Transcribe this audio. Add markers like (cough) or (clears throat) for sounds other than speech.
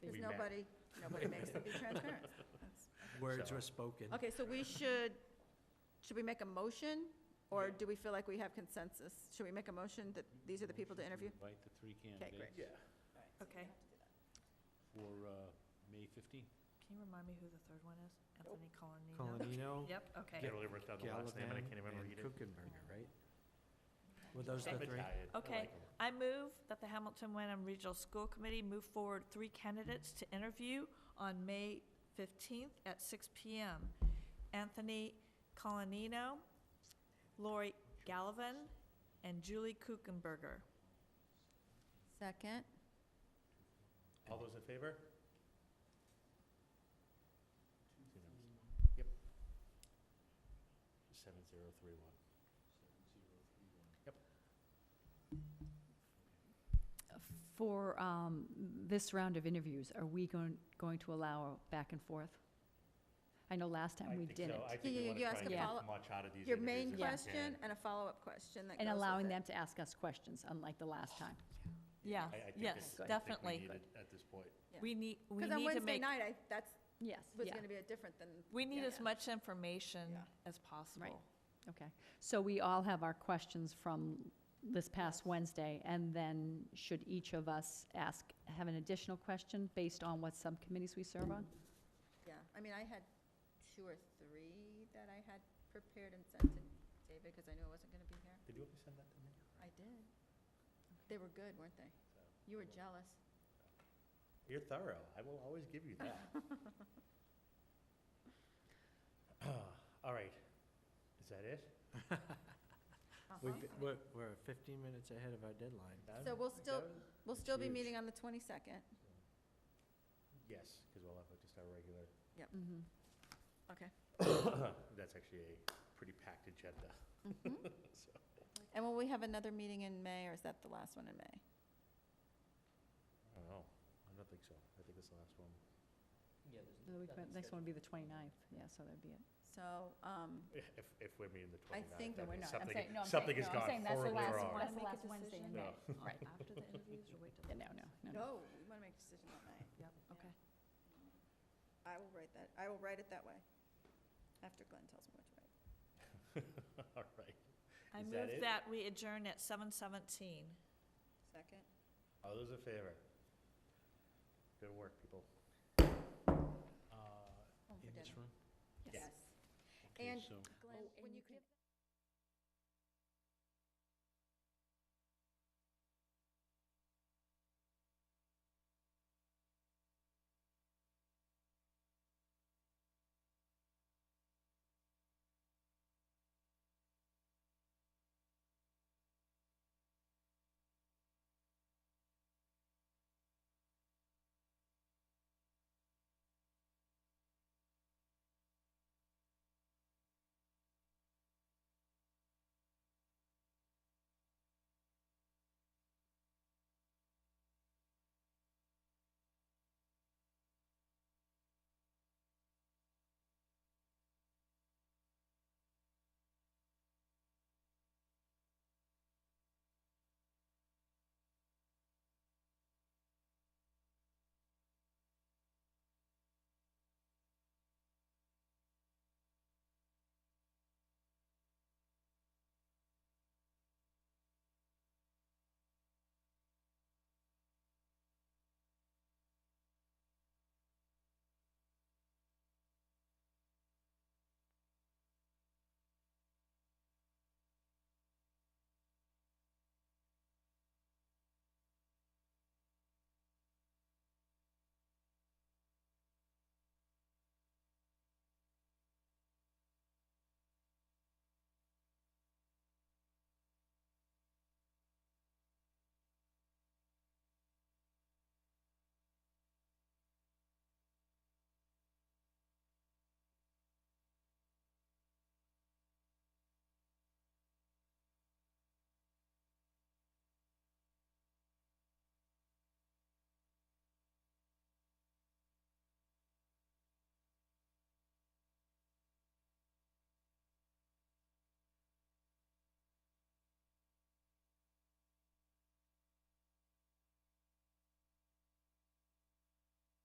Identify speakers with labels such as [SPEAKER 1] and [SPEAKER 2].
[SPEAKER 1] transparent.
[SPEAKER 2] Nobody, nobody makes them be transparent.
[SPEAKER 3] Words
[SPEAKER 1] So-
[SPEAKER 3] were spoken.
[SPEAKER 2] Okay, so we should, should we make a motion? Or do we feel like we have consensus? Should we make a motion that these are the people to interview?
[SPEAKER 4] Invite the three
[SPEAKER 2] great.
[SPEAKER 4] candidates
[SPEAKER 1] Yeah,
[SPEAKER 5] Okay.
[SPEAKER 4] for uh, May 15th.
[SPEAKER 5] Can you remind me who the third one is? Anthony Colonino?
[SPEAKER 3] Colonino,
[SPEAKER 5] Yep, okay.
[SPEAKER 1] can't really work out the last name, and I
[SPEAKER 3] Gallivan,
[SPEAKER 1] can't even
[SPEAKER 3] and
[SPEAKER 1] read it.
[SPEAKER 3] Kuchenberger, right? Were those the
[SPEAKER 1] I'm
[SPEAKER 5] Okay.
[SPEAKER 3] three?
[SPEAKER 1] retired. I
[SPEAKER 5] Okay.
[SPEAKER 1] like 'em.
[SPEAKER 5] I move that the Hamilton Wenham Regional School Committee move forward three candidates to interview on May 15th at 6 PM. Anthony Colonino, Lori Gallivan, and Julie Kuchenberger.
[SPEAKER 2] Second?
[SPEAKER 1] All those in favor? Yep.
[SPEAKER 4] Seven zero three one.
[SPEAKER 6] For um, this round of interviews, are we going, going to allow back and forth? I know last
[SPEAKER 1] I
[SPEAKER 6] time we
[SPEAKER 1] think
[SPEAKER 6] didn't.
[SPEAKER 1] so. I think
[SPEAKER 2] Yeah,
[SPEAKER 1] we
[SPEAKER 2] yeah,
[SPEAKER 1] wanna
[SPEAKER 2] you
[SPEAKER 1] try
[SPEAKER 2] ask
[SPEAKER 1] and
[SPEAKER 6] a
[SPEAKER 1] get as
[SPEAKER 2] follow-
[SPEAKER 1] Much out of these
[SPEAKER 2] Your main
[SPEAKER 1] interviews as we
[SPEAKER 2] question
[SPEAKER 1] can.
[SPEAKER 2] and a follow-up question that goes with
[SPEAKER 6] And
[SPEAKER 2] it.
[SPEAKER 6] allowing them to ask us questions, unlike the last time.
[SPEAKER 5] Yeah,
[SPEAKER 1] I- I think this- I
[SPEAKER 5] yes,
[SPEAKER 1] think we
[SPEAKER 5] definitely.
[SPEAKER 1] need it At this point.
[SPEAKER 2] Yeah.
[SPEAKER 5] We need, we
[SPEAKER 2] Because on
[SPEAKER 5] need to
[SPEAKER 2] Wednesday
[SPEAKER 5] make,
[SPEAKER 2] night, I, that's,
[SPEAKER 6] Yes,
[SPEAKER 2] was
[SPEAKER 6] yeah,
[SPEAKER 2] gonna be a different than,
[SPEAKER 5] we need
[SPEAKER 2] Yeah.
[SPEAKER 5] as much information
[SPEAKER 2] Yeah.
[SPEAKER 5] as possible.
[SPEAKER 6] okay. So we all have our questions from this past Wednesday, and then should each of us ask, have an additional question based on what subcommittees we serve on?
[SPEAKER 2] yeah. I mean, I had two or three that I had prepared and sent to David, because I knew I wasn't gonna be here.
[SPEAKER 1] Did you ever send that to me?
[SPEAKER 2] I did. They were good, weren't they? You were jealous.
[SPEAKER 1] You're thorough. I will always give you
[SPEAKER 2] (laughs)
[SPEAKER 1] that. (clears throat) All right. Is that it?
[SPEAKER 3] (laughs) We've,
[SPEAKER 2] Uh-huh.
[SPEAKER 3] we're, we're fifteen minutes ahead of our deadline.
[SPEAKER 1] Done?
[SPEAKER 2] So we'll
[SPEAKER 1] Like
[SPEAKER 2] still-
[SPEAKER 1] that?
[SPEAKER 2] We'll still be
[SPEAKER 1] huge.
[SPEAKER 2] meeting on the twenty-second.
[SPEAKER 1] Yes, because we'll have just our
[SPEAKER 2] (coughs)
[SPEAKER 1] regular, (coughs)
[SPEAKER 6] Mhm.
[SPEAKER 1] that's actually a pretty packed agenda.
[SPEAKER 2] Mm-hmm.
[SPEAKER 1] (laughs) So,
[SPEAKER 2] And will we have another meeting in May, or is that the last one in May?
[SPEAKER 1] I don't know. I don't think so. I think it's the last one.
[SPEAKER 6] The week- Next one would be the 29th, yeah, so that'd be it.
[SPEAKER 2] So, um,
[SPEAKER 1] (laughs) If, if we're meeting the
[SPEAKER 2] I
[SPEAKER 1] 29th.
[SPEAKER 2] think
[SPEAKER 1] that
[SPEAKER 6] No, we're
[SPEAKER 1] means
[SPEAKER 6] not. I'm
[SPEAKER 1] something- Something has
[SPEAKER 6] saying- no, I'm saying- no, I'm
[SPEAKER 1] gone
[SPEAKER 6] saying that's the
[SPEAKER 1] horribly
[SPEAKER 6] last
[SPEAKER 1] wrong.
[SPEAKER 6] one. That's the
[SPEAKER 5] Make a
[SPEAKER 6] last Wednesday in
[SPEAKER 5] decision?
[SPEAKER 6] May.
[SPEAKER 1] No.
[SPEAKER 6] Right.
[SPEAKER 5] After the interviews or wait till?
[SPEAKER 6] Yeah, No, no, no, no.
[SPEAKER 2] no, oh, we want to make a decision that night.
[SPEAKER 5] Yep, okay.
[SPEAKER 2] I will write that, I will write it that way, after Glenn tells me what to write.
[SPEAKER 1] (laughs) All right.
[SPEAKER 5] I
[SPEAKER 1] Is that
[SPEAKER 5] move
[SPEAKER 1] it?
[SPEAKER 5] that we adjourn at 7:17.
[SPEAKER 2] Second?
[SPEAKER 1] All those in favor? Good work, people. Uh,
[SPEAKER 2] Oh,
[SPEAKER 3] In
[SPEAKER 2] forget
[SPEAKER 3] this
[SPEAKER 2] it.
[SPEAKER 3] room?
[SPEAKER 1] Yes.
[SPEAKER 2] And
[SPEAKER 4] so.
[SPEAKER 2] Glenn, when you give